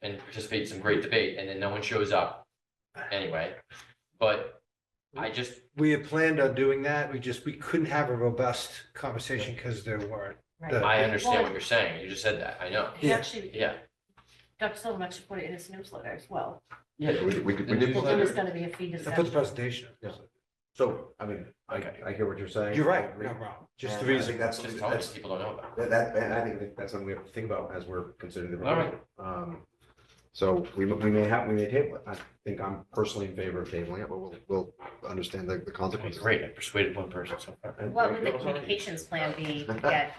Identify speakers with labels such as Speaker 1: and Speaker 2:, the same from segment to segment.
Speaker 1: participate in some great debate and then no one shows up anyway. But I just,
Speaker 2: We had planned on doing that. We just, we couldn't have a robust conversation because there weren't.
Speaker 3: Right.
Speaker 1: I understand what you're saying. You just said that. I know.
Speaker 3: He
Speaker 2: Yeah.
Speaker 3: actually
Speaker 1: Yeah.
Speaker 3: got so much to put it in his newsletter as well.
Speaker 1: Yeah.
Speaker 4: We did- we did-
Speaker 1: the
Speaker 4: we did put
Speaker 3: There
Speaker 1: newsletter-
Speaker 3: was gonna be a fee
Speaker 2: I put the
Speaker 3: discussion.
Speaker 2: presentation.
Speaker 4: Yeah. So, I mean, I, I hear what you're saying.
Speaker 2: You're right.
Speaker 4: I agree.
Speaker 2: No, wrong. Just the
Speaker 4: And I think
Speaker 2: reason.
Speaker 4: That's,
Speaker 1: Just tell us,
Speaker 4: that's,
Speaker 1: people don't know about it.
Speaker 4: that, that- and I think that's something we have to think about as we're considering the.
Speaker 1: All right.
Speaker 4: proposal. Um, So we, m- we may have, we may table it. I think I'm personally in favor of tabling it, but we'll, we'll understand the, the
Speaker 1: Okay,
Speaker 4: consequences.
Speaker 1: Great, I persuaded one person so far.
Speaker 4: And-
Speaker 5: What would the communications plan be to get?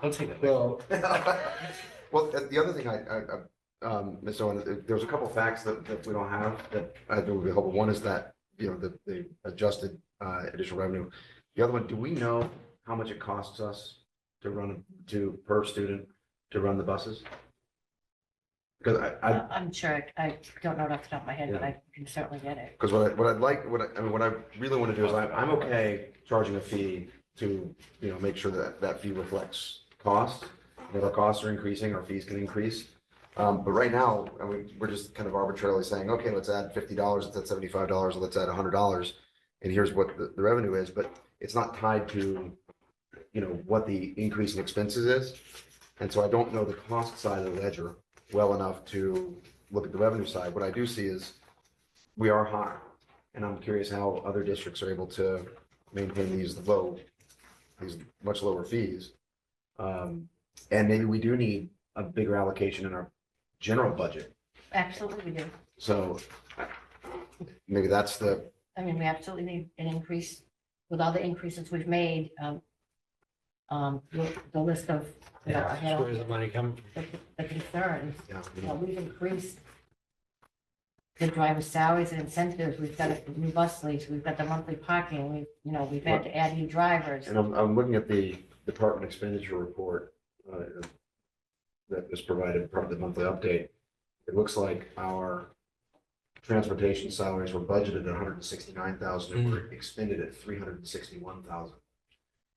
Speaker 1: Don't take that. away.
Speaker 4: Well, well, uh, the- the other thing I, I, I- um, Ms. Owen, there- there's a couple facts that, that we don't have that I think would be helpful. One is that, you know, the, the adjusted, uh, additional revenue. The other one, do we know how much it costs us to run, to, per student, to run the buses? Because I, I,
Speaker 3: Uh, I'm sure, I I don't know it off the top of my head, but I can certainly get it.
Speaker 4: because what I, what I'd like, what I, I mean, what I really want to do is I, I'm okay charging a fee to, you know, make sure that that fee reflects cost. If our costs are increasing, our fees can increase. Um, but right now, I mean, we're just kind of arbitrarily saying, okay, let's add fifty dollars, let's add seventy-five dollars, let's add hundred dollars. And here's what the, the revenue is, but it's not tied to, you know, what the increase in expenses is. And so I don't know the cost side of the ledger well enough to look at the revenue side. What I do see is we are high. And I'm curious how other districts are able to maintain these low, these much lower fees. Um, and maybe we do need a bigger allocation in our general budget.
Speaker 3: Absolutely we do.
Speaker 4: So I- maybe that's the,
Speaker 3: I mean, we absolutely need an increase with all the increases we've made. um, Um, the- the list of, you know,
Speaker 2: Yeah,
Speaker 3: I had all
Speaker 2: Where's the money coming from?
Speaker 3: the the concerns.
Speaker 4: yeah,
Speaker 3: you know, we've increased the driver's salaries and incentives, we've got a new bus lease, we've got the monthly parking, we, you know, we've had to add new drivers.
Speaker 4: and I'm, I'm looking at the department expenditure report uh, that was provided, part of the monthly update. It looks like our transportation salaries were budgeted at hundred and sixty-nine thousand and were expended at three hundred and sixty-one thousand.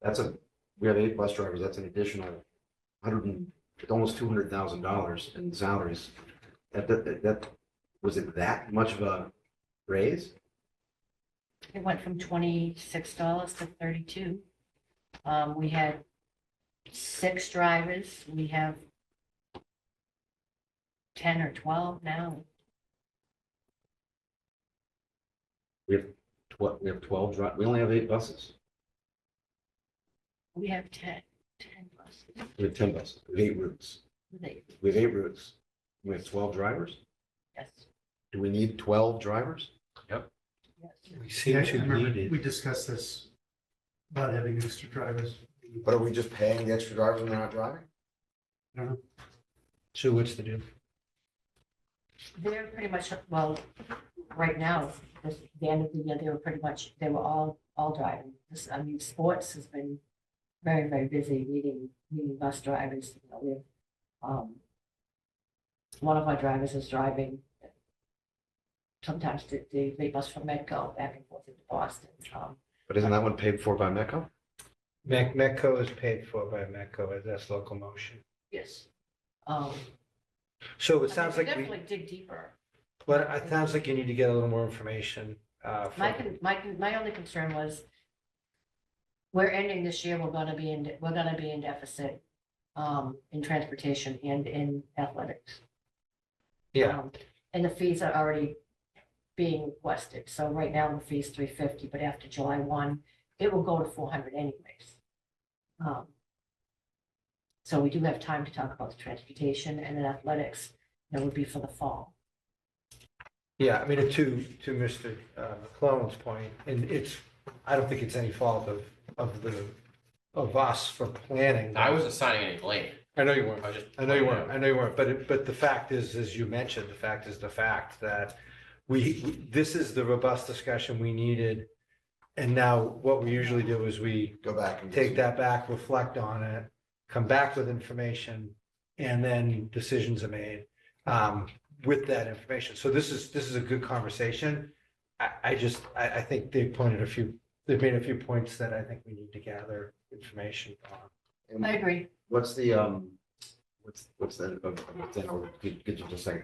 Speaker 4: That's a, we have eight bus drivers, that's an additional hundred and, almost two hundred thousand dollars in salaries. That, that, that, was it that much of a raise?
Speaker 3: It went from twenty-six dollars to thirty-two. Um, we had six drivers, we have ten or twelve now,
Speaker 4: Tw- we have twelve dri, we only have eight buses.
Speaker 3: we have ten, ten buses.
Speaker 4: We have ten buses, we have eight routes.
Speaker 3: They-
Speaker 4: We have eight routes. We have twelve drivers.
Speaker 3: Yes,
Speaker 4: Do we need twelve drivers?
Speaker 3: yes.
Speaker 2: We
Speaker 6: Yeah,
Speaker 2: seem
Speaker 6: I
Speaker 2: to
Speaker 6: remember
Speaker 2: need it.
Speaker 6: We discussed this about having extra drivers.
Speaker 4: But are we just paying the extra drivers when they're not driving?
Speaker 2: So what's the deal?
Speaker 3: They're pretty much, well, right now, this, the end of the year, they were pretty much, they were all, all driving. This, I mean, sports has been very, very busy meeting, meeting bus drivers, you know, we have, um, one of our drivers is driving sometimes the, the, the bus from Medco back and forth into Boston. Um,
Speaker 4: But isn't that one paid for by Metco?
Speaker 2: Mac, Metco is paid for by Metco, that's local motion.
Speaker 3: yes. Um,
Speaker 2: So
Speaker 3: I
Speaker 2: it
Speaker 3: mean,
Speaker 2: sounds
Speaker 3: we
Speaker 2: like, we-
Speaker 3: Definitely dig deeper.
Speaker 2: but it sounds like you need to get a little more information. uh, from-
Speaker 3: My, con- my, con- my only concern was we're ending this year, we're gonna be in, we're gonna be in deficit um, in transportation and in athletics.
Speaker 2: Yeah.
Speaker 3: Um, And the fees are already being requested. So right now the fee's three fifty, but after July one, it will go to four hundred anyways. Um, So we do have time to talk about the transportation and then athletics. That would be for the fall.
Speaker 2: Yeah, I mean, to, to Mr. uh, McClellan's point, and it's, I don't think it's any fault of, of the, of us for planning.
Speaker 1: I wasn't signing any blame.
Speaker 2: I know you
Speaker 1: I
Speaker 2: weren't.
Speaker 1: was just.
Speaker 2: I know you weren't, I know you weren't, but, it- but the fact is, as you mentioned, the fact is the fact that we, we- this is the robust discussion we needed. And now what we usually do is we
Speaker 4: Go back and.
Speaker 2: take that back, reflect on it, come back with information, and then decisions are made um, with that information. So this is, this is a good conversation. I, I just, I, I think they pointed a few, they've made a few points that I think we need to gather information on.
Speaker 4: And
Speaker 3: I agree.
Speaker 4: What's the, um, what's, what's that, uh, uh, what's that, oh, could could you just say,